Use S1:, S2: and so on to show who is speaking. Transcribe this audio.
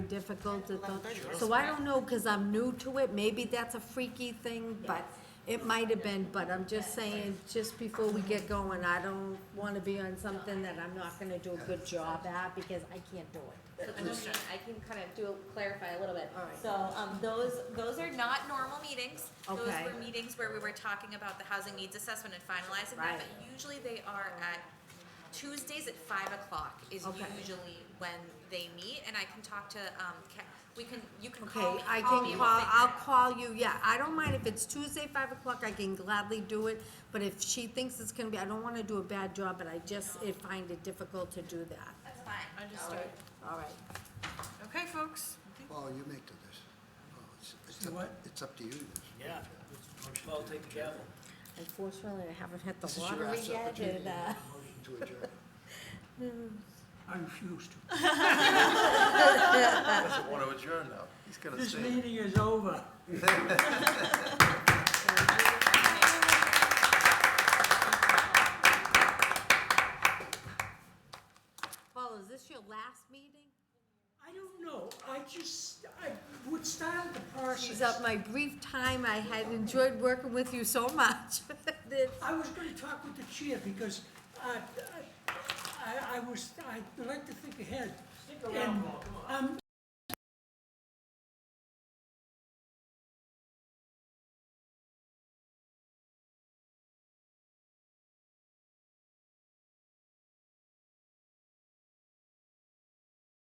S1: difficult at those. So I don't know, because I'm new to it, maybe that's a freaky thing, but it might have been, but I'm just saying, just before we get going, I don't want to be on something that I'm not gonna do a good job at, because I can't do it.
S2: So the motion, I can kind of do, clarify a little bit.
S1: All right.
S2: So, um, those, those are not normal meetings. Those
S1: Okay.
S2: were meetings where we were talking about the housing needs assessment and finalizing that,
S1: Right.
S2: but usually they are at Tuesdays at five o'clock is
S1: Okay.
S2: usually when they meet, and I can talk to, um, Ca- we can, you can call me,
S1: Okay, I
S2: call me,
S1: can
S2: we'll
S1: call,
S2: figure it
S1: I'll
S2: out.
S1: call you, yeah, I don't mind if it's Tuesday, five o'clock, I can gladly do it, but if she thinks it's gonna be, I don't want to do a bad job, but I just, it find it difficult to do that.
S2: That's fine.
S3: Understood.
S1: All right,
S3: Okay, folks.
S4: Paul, you make the decision. Paul, Oh, it's- it's up-
S5: what?
S4: It's up to you.
S5: Yeah, Paul, take the gavel.
S1: unfortunately, I haven't hit
S4: This
S1: the
S4: is your
S1: lottery
S4: last
S1: yet,
S4: opportunity.
S1: and, uh,
S4: Motion to adjourn.
S5: I refuse to.
S6: doesn't want to adjourn now. He's going to
S5: This
S6: stay.
S5: meeting is over.
S1: Paul, is this your last meeting?
S5: I don't know, I just, I would start out the process.
S1: Geez, of my brief time, I had enjoyed working with you so much. It's-
S5: I was gonna talk with the chair because uh, I, I was, I like to think ahead. Stick around, Paul, come on.